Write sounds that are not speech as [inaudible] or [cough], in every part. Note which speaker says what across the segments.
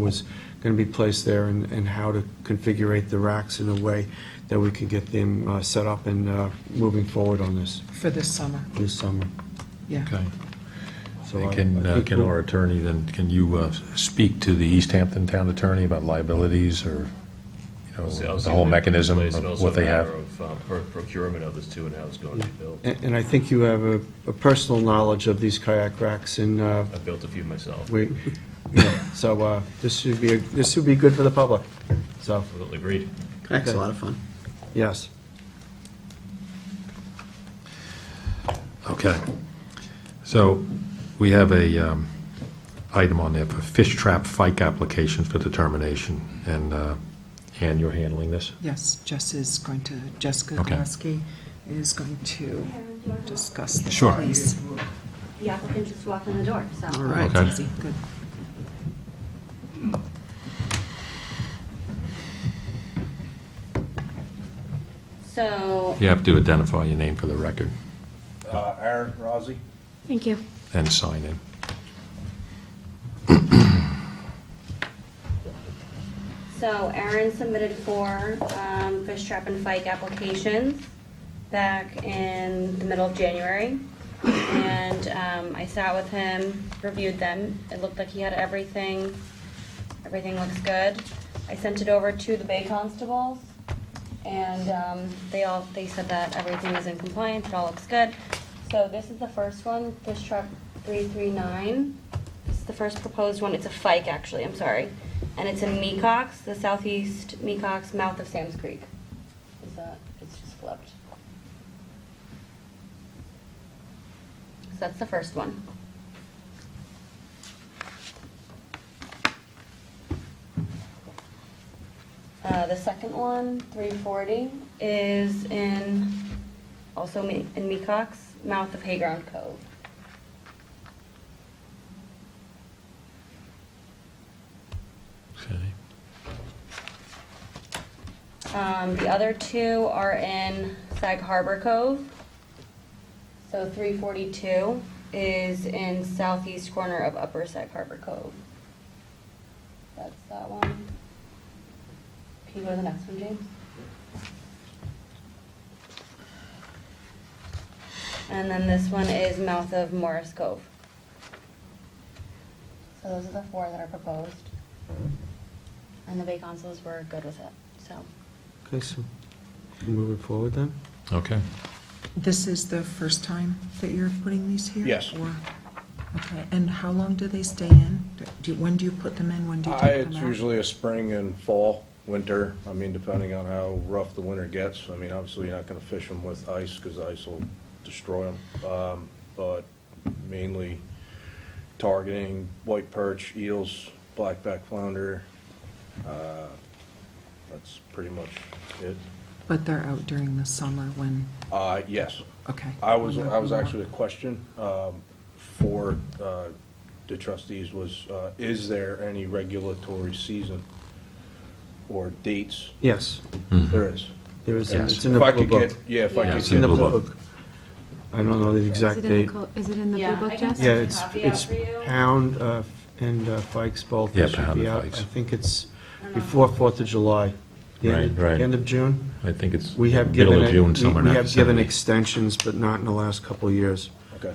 Speaker 1: was going to be placed there and and how to configure the racks in a way that we can get them uh, set up and uh, moving forward on this,
Speaker 2: for this summer,
Speaker 1: this summer.
Speaker 2: yeah.
Speaker 3: Okay.
Speaker 1: So
Speaker 3: And
Speaker 1: I-
Speaker 3: Can,
Speaker 1: I
Speaker 3: uh,
Speaker 1: think
Speaker 3: can
Speaker 1: we'll-
Speaker 3: our attorney, then, can you uh, speak to the East Hampton Town Attorney about liabilities or, you know,
Speaker 4: So I was
Speaker 3: the whole
Speaker 4: thinking
Speaker 3: mechanism
Speaker 4: it's
Speaker 3: of
Speaker 4: also
Speaker 3: what they
Speaker 4: a
Speaker 3: have?
Speaker 4: matter of, um, pro- Procurement of this too and how it's going to be built.
Speaker 1: And and I think you have a a personal knowledge of these kayak racks and uh,
Speaker 4: I've built a few myself.
Speaker 1: we, yeah, [laughs] so uh, this should be, this would be good for the public, so,
Speaker 4: Absolutely agreed.
Speaker 5: That's a lot of fun.
Speaker 1: yes.
Speaker 3: Okay. So we have a um, item on there for fish trap fike application for determination. And uh, Ann, you're handling this?
Speaker 2: Yes, Jess is going to, Jessica
Speaker 3: Okay.
Speaker 2: Kowalski is going to discuss the
Speaker 3: Sure.
Speaker 2: please.
Speaker 6: The applicant just walked in the door, so.
Speaker 5: All right.
Speaker 3: Okay.
Speaker 2: Easy, good.
Speaker 6: So.
Speaker 3: You have to identify your name for the record
Speaker 7: Uh, Aaron Rossi.
Speaker 6: Thank you.
Speaker 3: and sign in.
Speaker 6: So Aaron submitted four um, fish trap and fike applications back in the middle of January. And um, I sat with him, reviewed them. It looked like he had everything. Everything looks good. I sent it over to the Bay Constables. And um, they all, they said that everything is in compliance, it all looks good. So this is the first one, Fish Trap 339. This is the first proposed one, it's a fike actually, I'm sorry. And it's in Mecox, the southeast Mecox, mouth of Sam's Creek. Is that, it's just flipped. So that's the first one. Uh, the second one, three forty, is in, also Me- in Mecox, mouth of Hayground Cove.
Speaker 3: Okay.
Speaker 6: Um, the other two are in Sag Harbor Cove. So three forty-two is in southeast corner of Upper Sag Harbor Cove. That's that one. Can you go to the next one, James? And then this one is mouth of Morris Cove. So those are the four that are proposed. And the Bay Consuls were good with it, so.
Speaker 1: Okay, so moving forward then?
Speaker 3: Okay.
Speaker 2: This is the first time that you're putting these here?
Speaker 7: Yes.
Speaker 2: Or- Okay, and how long do they stay in? Do, you- when do you put them in, when do you
Speaker 7: I,
Speaker 2: take
Speaker 7: it's
Speaker 2: them out?
Speaker 7: usually a spring and fall, winter, I mean, depending on how rough the winter gets. I mean, obviously, you're not gonna fish them with ice, because ice will destroy them. Um, but mainly targeting white perch, eels, blackback flounder. Uh, That's pretty much it.
Speaker 2: But they're out during the summer when,
Speaker 7: Uh, yes.
Speaker 2: okay.
Speaker 7: I was,
Speaker 2: When
Speaker 7: I was
Speaker 2: they're-
Speaker 7: actually, a question um, for uh, the trustees was, uh, is there any regulatory season or dates?
Speaker 1: Yes,
Speaker 7: There is.
Speaker 1: there is,
Speaker 3: Hmm. Yes.
Speaker 1: it's in the
Speaker 7: If I
Speaker 1: blue
Speaker 7: could
Speaker 1: book.
Speaker 7: get, yeah, if I
Speaker 3: Yeah,
Speaker 7: could
Speaker 3: it's
Speaker 1: In
Speaker 7: get
Speaker 1: the
Speaker 3: Blue
Speaker 1: blue
Speaker 3: Book.
Speaker 1: book. I don't know the exact
Speaker 8: Is it in
Speaker 1: date.
Speaker 8: the, col- is it in the blue
Speaker 6: Yeah, I
Speaker 8: book,
Speaker 6: can
Speaker 8: Jess?
Speaker 1: Yeah, it's,
Speaker 6: Copy out
Speaker 1: it's
Speaker 6: for you.
Speaker 1: Pound uh, and uh, Fikes both.
Speaker 3: Yeah,
Speaker 1: should
Speaker 3: Pound
Speaker 1: be
Speaker 3: and
Speaker 1: out.
Speaker 3: Fikes.
Speaker 1: I think it's before Fourth of July. the end-
Speaker 3: Right, right.
Speaker 1: End of June.
Speaker 3: I think it's
Speaker 1: We have
Speaker 3: middle
Speaker 1: given,
Speaker 3: of
Speaker 1: it-
Speaker 3: June,
Speaker 1: we
Speaker 3: somewhere in
Speaker 1: we
Speaker 3: that
Speaker 1: have given
Speaker 3: vicinity.
Speaker 1: extensions, but not in the last couple of years.
Speaker 7: Okay.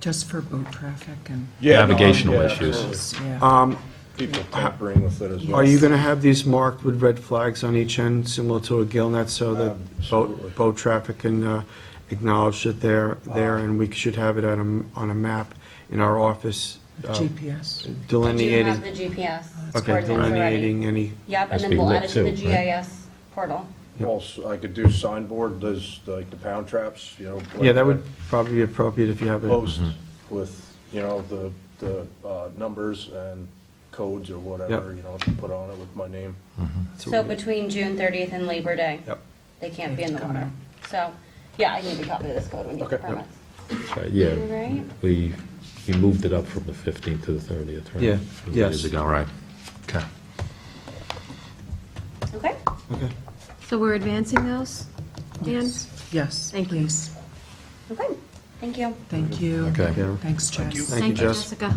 Speaker 2: Just for boat traffic and,
Speaker 7: Yeah, no, I'm-
Speaker 3: Navigational
Speaker 7: yeah,
Speaker 3: issues. Uh,
Speaker 7: absolutely.
Speaker 2: yeah,
Speaker 1: Um,
Speaker 7: People tampering with it as well.
Speaker 1: Are you going to have these marked with red flags on each end, similar to a gill net, so that
Speaker 7: Absolutely.
Speaker 1: boat, boat traffic can uh, acknowledge that they're there, and we should have it on a, m- on a map in our office uh,
Speaker 2: GPS.
Speaker 6: I do
Speaker 1: delineating,
Speaker 6: have the GPS
Speaker 1: okay,
Speaker 6: coordinates already.
Speaker 1: delineating any,
Speaker 3: Has
Speaker 6: Yep, and
Speaker 3: to
Speaker 6: then
Speaker 3: be
Speaker 6: we'll
Speaker 3: lit
Speaker 6: add it to the
Speaker 3: too, right?
Speaker 6: GIS portal.
Speaker 7: Also, I could do signboard, those, like the pound traps, you know.
Speaker 1: yeah, that would
Speaker 7: like
Speaker 1: probably be appropriate if you have it.
Speaker 7: Post
Speaker 3: Mm-hmm.
Speaker 7: with, you know, the, the uh, numbers and codes or whatever, you know, put on it with my name.
Speaker 6: So between June 30th and Labor Day,
Speaker 1: Yep.
Speaker 6: they can't be in the
Speaker 2: Come
Speaker 6: water. So, yeah, I need to copy of this code when you
Speaker 7: Okay.
Speaker 6: get permits.
Speaker 3: Right,
Speaker 6: Right?
Speaker 3: Yeah, we, we moved it up from the 15th to the 30th, right?
Speaker 1: Yeah,
Speaker 3: A few
Speaker 1: yes.
Speaker 3: years ago, right. Okay.
Speaker 6: Okay?
Speaker 1: Okay.
Speaker 8: So we're advancing those? Ann?
Speaker 2: Yes. Yes,
Speaker 8: Thank you.
Speaker 2: please.
Speaker 6: Okay, thank you.
Speaker 2: Thank you.
Speaker 3: Okay.
Speaker 2: Thanks, Jess.
Speaker 8: Thank you,
Speaker 1: Jess.
Speaker 8: Jessica.